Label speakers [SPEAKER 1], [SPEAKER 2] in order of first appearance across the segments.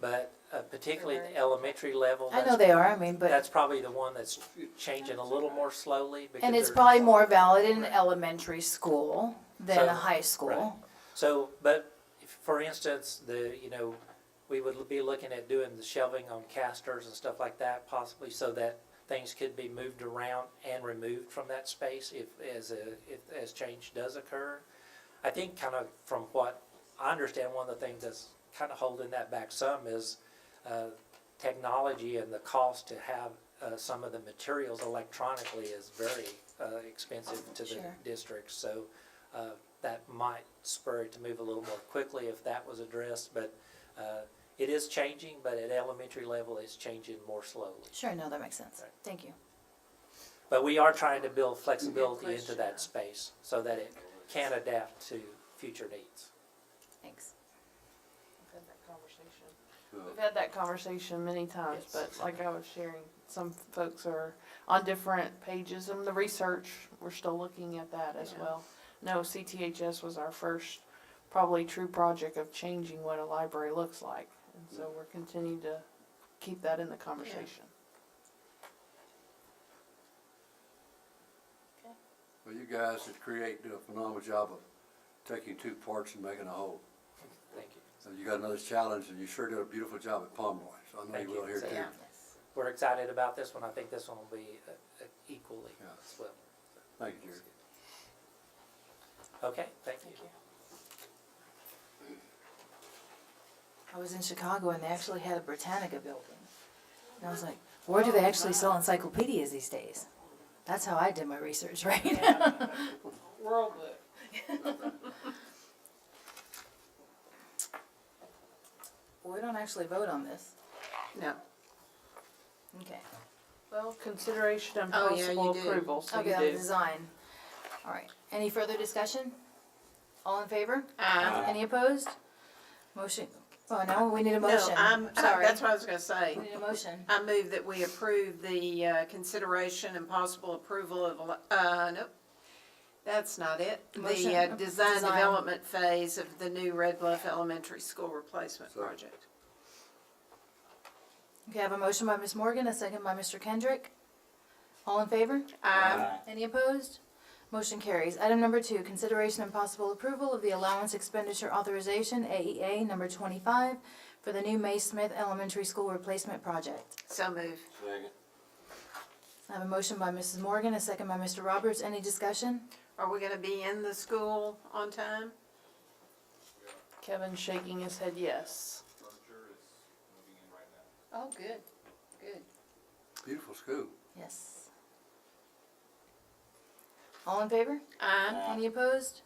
[SPEAKER 1] but uh, particularly at the elementary level.
[SPEAKER 2] I know
[SPEAKER 1] that's-
[SPEAKER 2] they are, I mean, but,
[SPEAKER 1] That's probably the one that's changing a little more slowly. because
[SPEAKER 2] and it's
[SPEAKER 1] they're-
[SPEAKER 2] probably more valid in
[SPEAKER 1] Right.
[SPEAKER 2] elementary school than
[SPEAKER 1] So,
[SPEAKER 2] a high school.
[SPEAKER 1] So, but if, for instance, the, you know, we would be looking at doing the shelving on casters and stuff like that possibly so that things could be moved around and removed from that space if, as a, if, as change does occur. I think kind of from what I understand, one of the things that's kind of holding that back some is, uh, technology and the cost to have, uh, some of the materials electronically is very, uh, expensive to the
[SPEAKER 2] Sure.
[SPEAKER 1] districts. So, uh, that might spur it to move a little more quickly if that was addressed, but, uh, it is changing, but at elementary level, it's changing more slowly.
[SPEAKER 2] Sure, no, that makes sense.
[SPEAKER 1] Right.
[SPEAKER 2] Thank you.
[SPEAKER 1] But we are trying to build flexibility into that space so that it can adapt to future needs.
[SPEAKER 2] Thanks.
[SPEAKER 3] We've had that conversation. We've had that conversation many times,
[SPEAKER 1] Yes.
[SPEAKER 3] but like I was sharing, some folks are on different pages and the research, we're still looking at that as
[SPEAKER 2] Yeah.
[SPEAKER 3] well. No, CTHS was our first probably true project of changing what a library looks like. And so we're continuing to keep that in the conversation.
[SPEAKER 4] Well, you guys that create do a phenomenal job of taking two parts and making a whole.
[SPEAKER 1] Thank you.
[SPEAKER 4] So you got another challenge, and you sure did a beautiful job at Pomeroy, so I know
[SPEAKER 1] Thank
[SPEAKER 4] you will
[SPEAKER 1] you.
[SPEAKER 4] here
[SPEAKER 1] So,
[SPEAKER 4] too.
[SPEAKER 1] yeah. We're excited about this one. I think this one will be uh, uh, equally
[SPEAKER 4] Yeah.
[SPEAKER 1] as well.
[SPEAKER 4] Thank you, Jerry.
[SPEAKER 1] Okay, thank you.
[SPEAKER 2] I was in Chicago and they actually had a Britannica building. And I was like, where do they actually sell encyclopedias these days? That's how I did my research, right?
[SPEAKER 3] World book.
[SPEAKER 2] We don't actually vote on this.
[SPEAKER 3] No,
[SPEAKER 2] Okay.
[SPEAKER 3] well, consideration and
[SPEAKER 5] Oh, yeah, you
[SPEAKER 3] possible
[SPEAKER 5] do.
[SPEAKER 3] approval, so
[SPEAKER 2] Okay,
[SPEAKER 3] you
[SPEAKER 2] on the
[SPEAKER 3] do.
[SPEAKER 2] design. All right. Any further discussion? All in favor?
[SPEAKER 5] Uh,
[SPEAKER 2] Any opposed? Motion, oh, now we need a
[SPEAKER 5] no,
[SPEAKER 2] motion.
[SPEAKER 5] I'm,
[SPEAKER 2] Sorry.
[SPEAKER 5] that's what I was gonna say.
[SPEAKER 2] We need a motion.
[SPEAKER 5] I move that we approve the, uh, consideration and possible approval of, el- uh, nope. That's not it.
[SPEAKER 2] Motion,
[SPEAKER 5] The, uh,
[SPEAKER 2] uh,
[SPEAKER 5] design
[SPEAKER 2] design.
[SPEAKER 5] development phase of the new Red Bluff Elementary School replacement
[SPEAKER 4] Sorry.
[SPEAKER 5] project.
[SPEAKER 2] Okay, I have a motion by Ms. Morgan, a second by Mr. Kendrick. All in favor?
[SPEAKER 5] Aye.
[SPEAKER 2] Any opposed? Motion carries. Item number two, consideration and possible approval of the allowance expenditure authorization, AEA number twenty-five, for the new May Smith Elementary School Replacement Project.
[SPEAKER 5] So move.
[SPEAKER 2] I have a motion by Mrs. Morgan, a second by Mr. Roberts. Any discussion?
[SPEAKER 5] Are we gonna be in the school on time?
[SPEAKER 3] Kevin shaking his head yes.
[SPEAKER 5] Oh, good, good.
[SPEAKER 4] Beautiful school.
[SPEAKER 2] Yes. All in favor?
[SPEAKER 5] Aye.
[SPEAKER 2] Any opposed?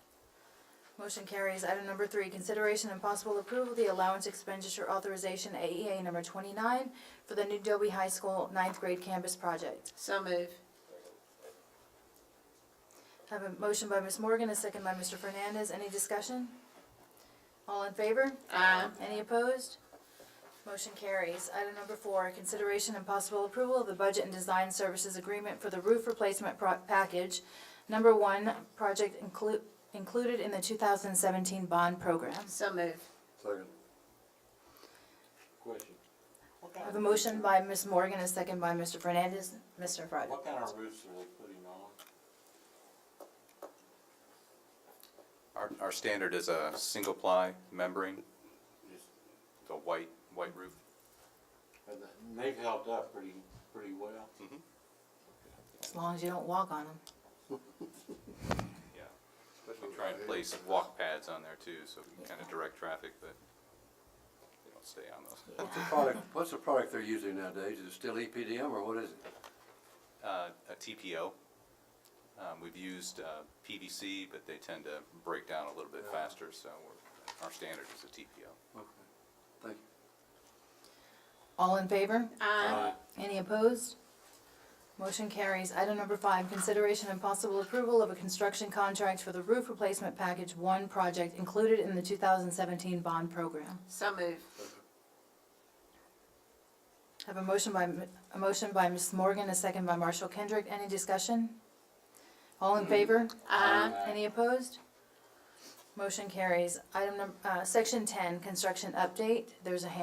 [SPEAKER 2] Motion carries. Item number three, consideration and possible approval of the allowance expenditure authorization, AEA number twenty-nine, for the new Dobie High School ninth grade campus project.
[SPEAKER 5] So move.
[SPEAKER 2] I Have a motion by Ms. Morgan, a second by Mr. Fernandez. Any discussion? All in favor?
[SPEAKER 5] Aye.
[SPEAKER 2] Any opposed? Motion carries. Item number four, consideration and possible approval of the budget and design services agreement for the roof replacement pro- package. Number one, project inclu- included in the two thousand seventeen bond program.
[SPEAKER 5] So move.
[SPEAKER 4] Second.
[SPEAKER 6] Question, what
[SPEAKER 2] I
[SPEAKER 6] kind
[SPEAKER 2] have
[SPEAKER 6] of,
[SPEAKER 2] a motion by Ms. Morgan, a second by Mr. Fernandez. Mr. Friday.
[SPEAKER 6] what kind of roofs are they putting on?
[SPEAKER 7] Our, our standard is a single ply membrane,
[SPEAKER 6] Just,
[SPEAKER 7] the white, white roof.
[SPEAKER 6] and the- they've held up pretty, pretty well.
[SPEAKER 2] As long as you don't walk on them.
[SPEAKER 7] Yeah. We try and place walk pads on there too, so we can kind of direct traffic, but they don't stay on those.
[SPEAKER 4] What's the product, what's the product they're using nowadays? Is it still E EPDM or what is it?
[SPEAKER 7] Uh, a TPO. Um, we've used, uh, PVC, but they tend to break down a little bit faster, so we're, our standard is a TPO.
[SPEAKER 4] Okay. Thank you.
[SPEAKER 2] All in favor?
[SPEAKER 5] Aye.
[SPEAKER 2] Any opposed? Motion carries. Item number five, consideration and possible approval of a construction contract for the roof replacement package one project included in the two thousand seventeen bond program.
[SPEAKER 5] So move.
[SPEAKER 2] I Have a motion by, a motion by Ms. Morgan, a second by Marshall Kendrick. Any discussion? All in favor?
[SPEAKER 5] Aye.
[SPEAKER 2] Any opposed? Motion carries. Item number, uh, section ten, construction update. There's a hand